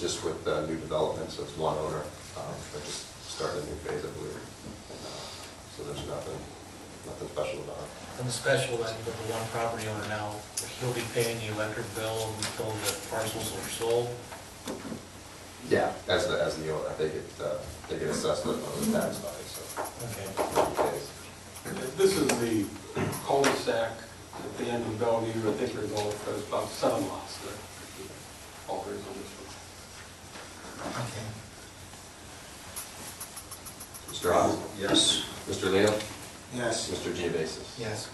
Just with uh, new developments, so it's one owner, um, but just started a new phase, I believe. And, uh, So there's nothing, nothing special about it. And the special that the one property owner now, he'll be paying the electric bill until the parcels are sold. Yeah. As the, as the owner, they get, uh, they get assessed on the tax value, so. Okay. This is the cul-de-sac at the end of Bellevue, I think there's all, there's about seven lots there. All there is on this one. Mr. Hawes? Yes. Mr. Lino? Yes. Mr. Geovasis? Yes.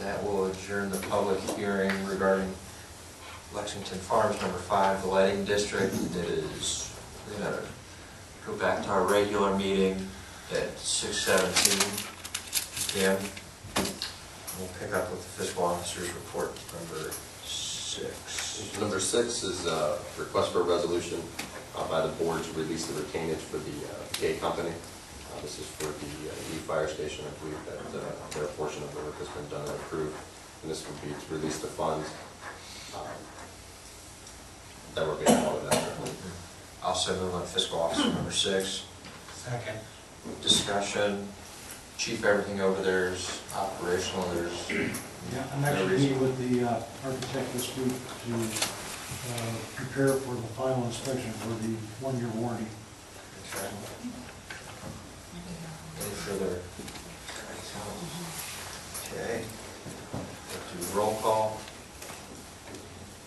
That will adjourn the public hearing regarding Lexington Farms Number Five, the lighting district. It is, we're gonna go back to our regular meeting at six seventeen PM. We'll pick up with the fiscal officer's report number six. Number six is a request for a resolution uh, by the board to release the retainage for the uh, K Company. Uh, This is for the uh, new fire station, I believe that uh, their portion of the work has been done and approved. And this would be to release the funds um, that were being held in that. Also move on fiscal officer number six. Second. Discussion, chief, everything over there is operational, there's. Yeah, I'm actually meeting with the uh, architect this week to uh, prepare for the final inspection for the one-year warranty. Okay. Any further? Okay. We'll Do roll call?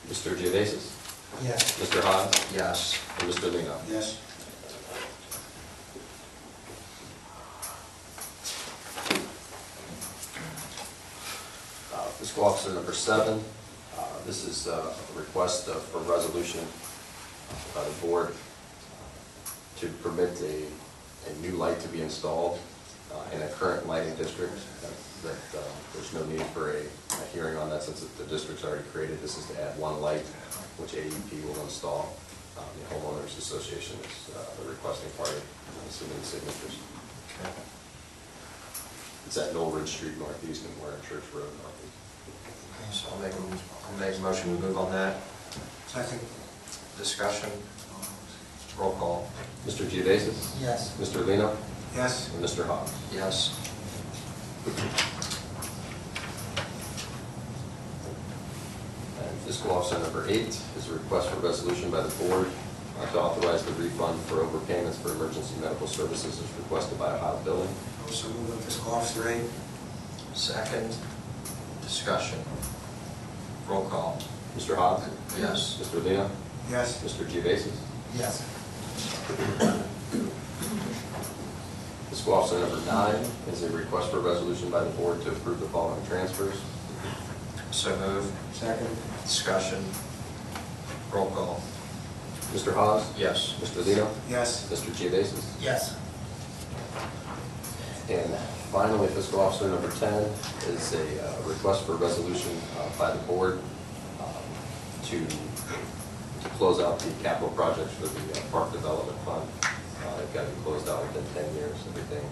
Mr. Geovasis? Yes. Mr. Hawes? Yes. And Mr. Lino? Yes. Uh, Fiscal Officer number seven, uh, this is uh, a request of- for resolution by the board uh, to permit a, a new light to be installed uh, in a current lighting district, that- that uh, there's no need for a a hearing on that since the district's already created. This is to add one light, which AEP will install. Uh, The homeowners association is uh, the requesting party, uh, submitting signatures. Okay. It's at Noel Ridge Street Northeast and Warren Church Road Northeast. So I'll make, a- I'll make a motion to move on that. Second. Discussion? Roll call? Mr. Geovasis? Yes. Mr. Lino? Yes. And Mr. Hawes? Yes. And fiscal officer number eight is a request for resolution by the board uh, to authorize the refund for overpayments for emergency medical services as requested by Ohio Billing. Also move on fiscal officer eight. Second? Discussion? Roll call? Mr. Hawes? Yes. Mr. Lino? Yes. Mr. Geovasis? Yes. Fiscal officer number nine is a request for resolution by the board to approve the following transfers. So move. Second. Discussion? Roll call? Mr. Hawes? Yes. Mr. Lino? Yes. Mr. Geovasis? Yes. And finally, fiscal officer number 10 is a uh, request for resolution uh, by the board um, to, to close out the capital projects for the uh, park development fund. Uh, They've got to be closed out within 10 years, everything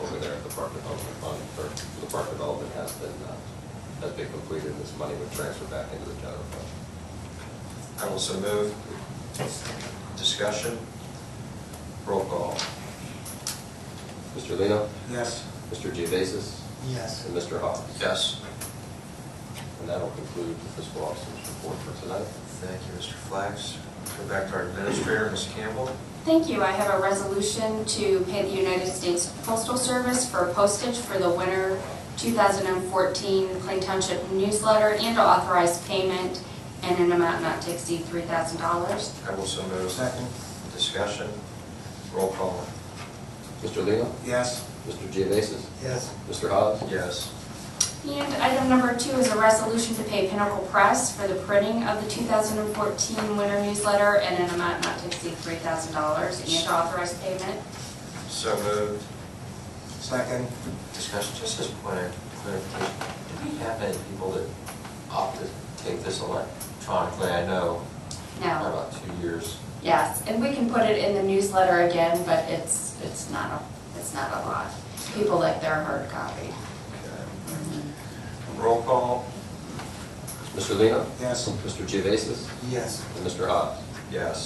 over there at the park development fund, or the park development has been, uh, has been completed, and this money would transfer back into the general fund. I will so move. Discussion? Roll call? Mr. Lino? Yes. Mr. Geovasis? Yes. And Mr. Hawes? Yes. And that'll conclude the fiscal officer's report for tonight. Thank you, Mr. Flax. Go back to our administrator, Ms. Campbell. Thank you. I have a resolution to pay the United States Postal Service for postage for the winter 2014 Plain Township newsletter and to authorize payment in an amount not to exceed $3,000. I will so move. Second. Discussion, roll call. Mr. Lino? Yes. Mr. Geovasis? Yes. Mr. Hawes? Yes. And item number two is a resolution to pay Pinnacle Press for the printing of the 2014 winter newsletter in an amount not to exceed $3,000 and to authorize payment. So moved. Second. Discussion, just as a point of clarification, do we have any people that opt to take this electronically? I know. No. About two years. Yes, and we can put it in the newsletter again, but it's, it's not, a it's not a lot. People like their hard copy. Mm-hmm. Okay. Roll call. Mr. Lino? Yes. Mr. Geovasis? Yes. And Mr. Hawes? Yes.